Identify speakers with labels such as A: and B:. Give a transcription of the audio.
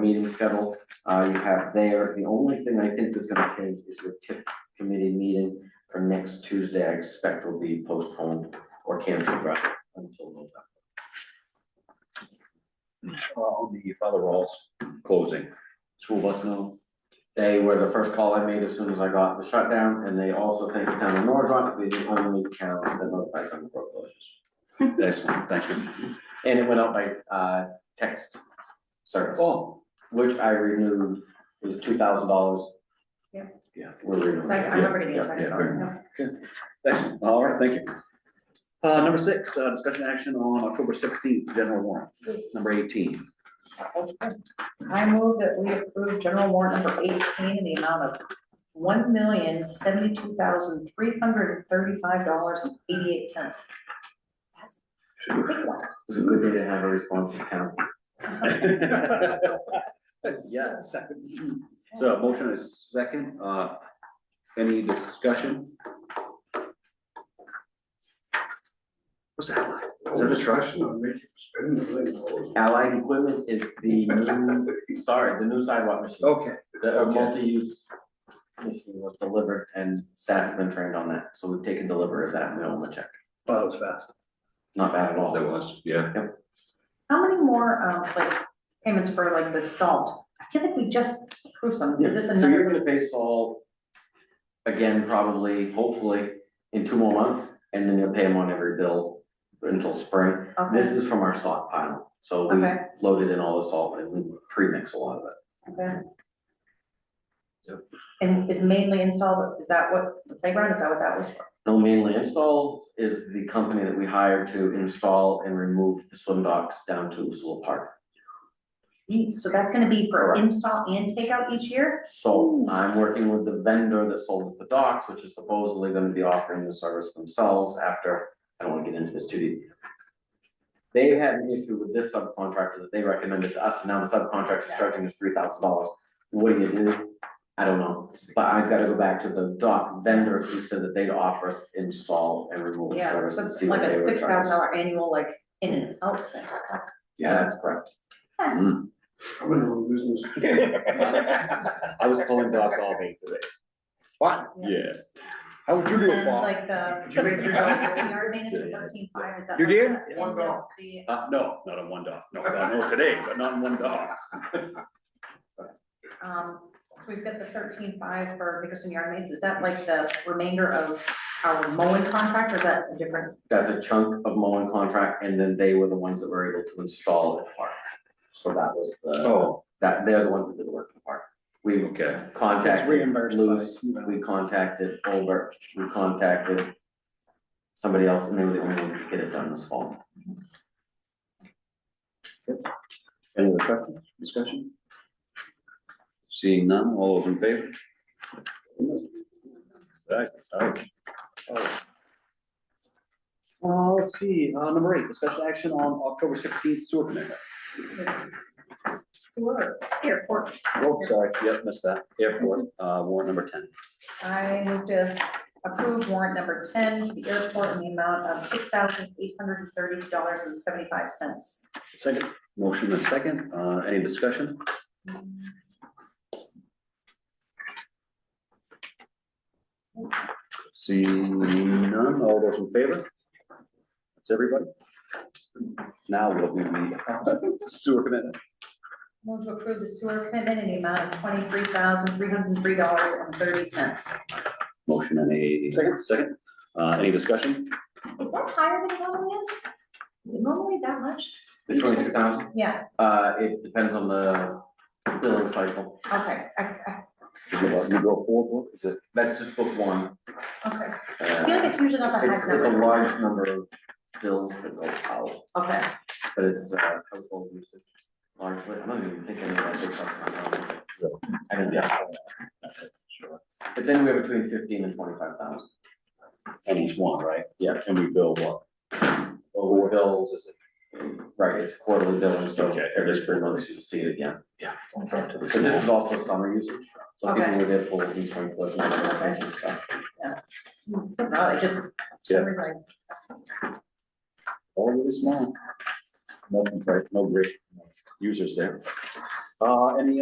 A: meeting schedule, uh, you have there, the only thing I think that's gonna change is your TIF committee meeting for next Tuesday, I expect will be postponed or canceled rather until November.
B: Well, the other roles closing.
A: School bus no. They were the first call I made as soon as I got the shutdown, and they also thank the town of Norwood, they're the only town that notifies them of road closures.
B: Excellent, thank you.
A: And it went out by, uh, text service.
B: Oh,
A: which I renewed, it was two thousand dollars.
C: Yeah.
A: Yeah, we're renewing.
C: It's like, I remember getting
A: Yeah,
C: a text
B: yeah,
C: on
B: very
C: it.
B: excellent, all right, thank you. Uh, number six, uh, discussion action on October sixteenth, general warrant, number eighteen.
C: I move that we approve general warrant number eighteen in the amount of one million seventy-two thousand three hundred and thirty-five dollars and eighty-eight cents.
A: It was a good day to have a responsive town.
B: Yeah, second. So motion is second, uh, any discussion? What's that like? Is that a truck?
D: Discussion on making, spending a million dollars.
A: Allied Equipment is the new, sorry, the new sidewalk machine,
B: Okay.
A: the uh,
B: Oh, okay.
A: multi-use machine was delivered and staff have been trained on that, so we've taken delivery of that, and we own the check,
B: Well, that was fast.
A: not bad at all.
B: That was, yeah.
C: How many more, um, like, payments for like the salt? I feel like we just approved some, is this
A: So you're
C: another?
A: gonna pay Saul again, probably, hopefully, in two more months, and then you'll pay him on every bill until spring.
C: Okay.
A: This is from our stockpile, so we
C: Okay.
A: loaded in all the salt and we pre-mix a lot of it.
C: Okay.
B: Yep.
C: And is mainly installed, is that what, the playground, is that what that was for?
A: No mainly installed is the company that we hired to install and remove the swim docks down to Usula Park.
C: Neat, So that's gonna be for
A: Correct.
C: install and takeout each year?
A: So I'm working with the vendor that sold us the docks, which is supposedly gonna be offering the service themselves after, I don't wanna get into this too deep. They had an issue with this subcontractor that they recommended to us, and now the subcontractor's charging us three thousand dollars. What do you do? I don't know, but I've gotta go back to the dock vendor who said that they'd offer us install and removal
C: Yeah,
A: service
C: so
A: and
C: it's
A: see what
C: like
A: they
C: a
A: would charge.
C: six thousand dollar annual, like, in and out thing. That's-
A: Yeah, that's correct.
D: I'm in the business.
B: I was calling dogs all day today. What? Yeah. How would you
C: And then like the.
D: Did you make your-
C: Yard maintenance for thirteen five, is that?
B: You
C: like
B: did?
C: the-
D: One
C: and the-
D: dog.
C: the-
B: Uh, no, not on one dog, no, I know today, but not on one dog.
C: Um, so we've got the thirteen five for Nickerson Yard Maintenance, is that like the remainder of our mowing contract, or is that a different?
A: That's a chunk of mowing contract, and then they were the ones that were able to install it at Park. So that was the.
B: Oh,
A: that they're the ones that did the work in the park. We
B: okay,
A: contacted
E: reimbursed by-
A: Luce, we contacted Olbert, we contacted somebody else, and they were the only ones that could get it done this fall.
B: any other questions, discussion? Seeing none, all those in favor? Right, alright. Uh, let's see, uh, number eight, discussion action on October sixteenth sewer commitment.
C: Sewer, airport,
B: Oh, sorry, yep, missed that, airport, uh, warrant number ten.
C: I move to approve warrant number ten, for the airport in the amount of six thousand eight hundred and thirty dollars and seventy-five cents.
B: Second. Motion and second, uh, any discussion? Seeing none, all those in favor? That's everybody. Now what we need, sewer commitment,
C: Move to approve the sewer commitment in the amount of twenty-three thousand three hundred and three dollars and thirty cents.
B: motion and a second, second, uh, any discussion?
C: Is that higher than it normally is? Is it normally that much?
A: The twenty-two thousand,
C: Yeah,
A: uh, it depends on the billing cycle,
C: okay, I, I,
B: You go- you go forward, is it?
A: that's just book one.
C: okay. I feel like
A: Uh,
C: it's usually not the
A: It's,
C: highest
A: it's a
C: number.
A: large number of bills that go out,
C: Okay,
A: but it's, uh, household usage largely, I don't even think any of that big stuff comes out. I don't think so.
B: Sure.
A: It's anywhere between fifteen and twenty-five thousand.
B: And each one, right?
A: Yeah.
B: And we bill what?
A: Well, we bill, right, it's quarterly billing, so
B: Okay.
A: every three months you'll see it again.
B: But
A: But this is also summer usage, so people
C: Okay.
A: with their pools and swimming pools and all that fancy stuff.
C: no, it just,
B: Yeah.
C: sorry, like,
B: all really small. Nothing, right, no great. users there. Uh, any